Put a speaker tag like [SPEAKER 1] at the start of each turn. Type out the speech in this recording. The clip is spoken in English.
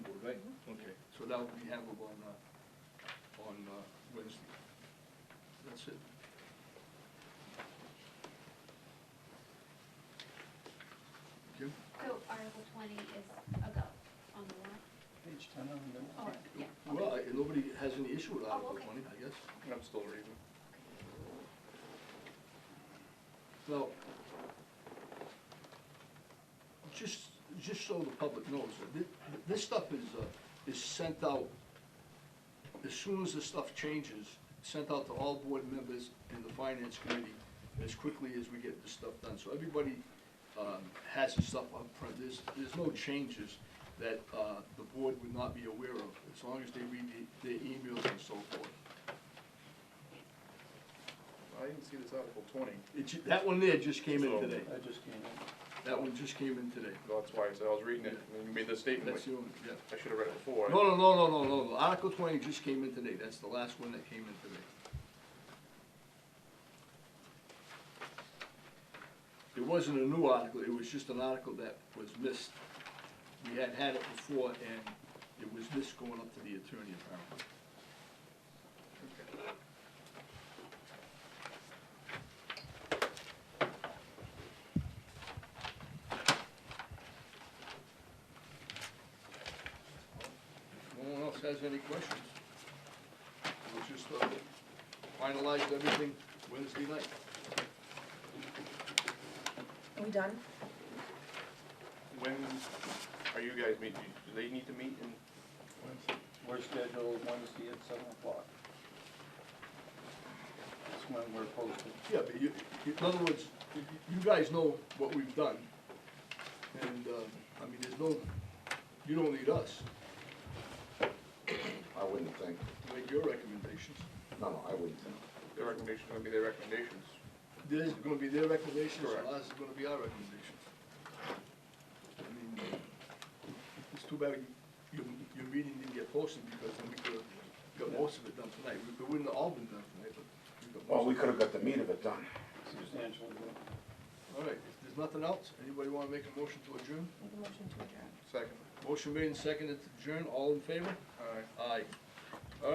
[SPEAKER 1] Mm-hmm.
[SPEAKER 2] So that will be handled on, uh, on uh, Wednesday. That's it. Jim?
[SPEAKER 1] So Article twenty is a go on the warrant?
[SPEAKER 3] Page ten of the
[SPEAKER 1] Oh,
[SPEAKER 3] note.
[SPEAKER 1] yeah.
[SPEAKER 2] Well, I- nobody has any issue with
[SPEAKER 1] Oh,
[SPEAKER 2] Article
[SPEAKER 1] okay.
[SPEAKER 2] twenty, I guess.
[SPEAKER 3] I'm still reading.
[SPEAKER 2] Well, just, just so the public knows, uh, thi- this stuff is, uh, is sent out, as soon as the stuff changes, sent out to all board members and the finance committee as quickly as we get this stuff done. So everybody um, has the stuff up front. There's, there's no changes that uh, the board would not be aware of, as long as they read the- their emails and so forth.
[SPEAKER 4] I didn't see this Article twenty,
[SPEAKER 2] It ju- That one there just came in
[SPEAKER 4] So-
[SPEAKER 2] today.
[SPEAKER 3] I just came in.
[SPEAKER 2] That one just came in today.
[SPEAKER 4] that's why, so I was reading it, and you made the statement,
[SPEAKER 2] That's
[SPEAKER 4] like,
[SPEAKER 2] the only, yeah.
[SPEAKER 4] I should have read it before.
[SPEAKER 2] No, no, no, no, no, no, Article twenty just came in today, that's the last one that came in today. It wasn't a new article, it was just an article that was missed. We had had it before, and it was missed going up to the attorney apparently. If no one else has any questions, we'll just uh, finalize everything Wednesday night.
[SPEAKER 5] Are we done?
[SPEAKER 4] When are you guys meeting, do they need to meet in,
[SPEAKER 3] We're scheduled Wednesday at seven o'clock. That's when we're posted.
[SPEAKER 2] Yeah, but you, in other words, you you guys know what we've done, and, uh, I mean, there's no, you don't need us
[SPEAKER 6] I wouldn't think,
[SPEAKER 2] to make your recommendations.
[SPEAKER 6] no, no, I wouldn't think.
[SPEAKER 4] their recommendations, gonna be their recommendations?
[SPEAKER 2] Theirs is gonna be their recommendations, and
[SPEAKER 4] Correct.
[SPEAKER 2] ours is gonna be our recommendations. I mean, it's too bad your, your meeting didn't get posted, because then we could've got most of it done tonight, we, it wouldn't have all been done tonight, but we got most.
[SPEAKER 6] Well,
[SPEAKER 2] of
[SPEAKER 6] we
[SPEAKER 2] it.
[SPEAKER 6] could have got the meat of it done.
[SPEAKER 3] Substantial.
[SPEAKER 2] All right, if there's nothing else, anybody wanna make a motion to adjourn?
[SPEAKER 5] Make a motion to adjourn.
[SPEAKER 4] Second.
[SPEAKER 2] Motion made and seconded to adjourn, all in favor?
[SPEAKER 4] All right.
[SPEAKER 2] Aye.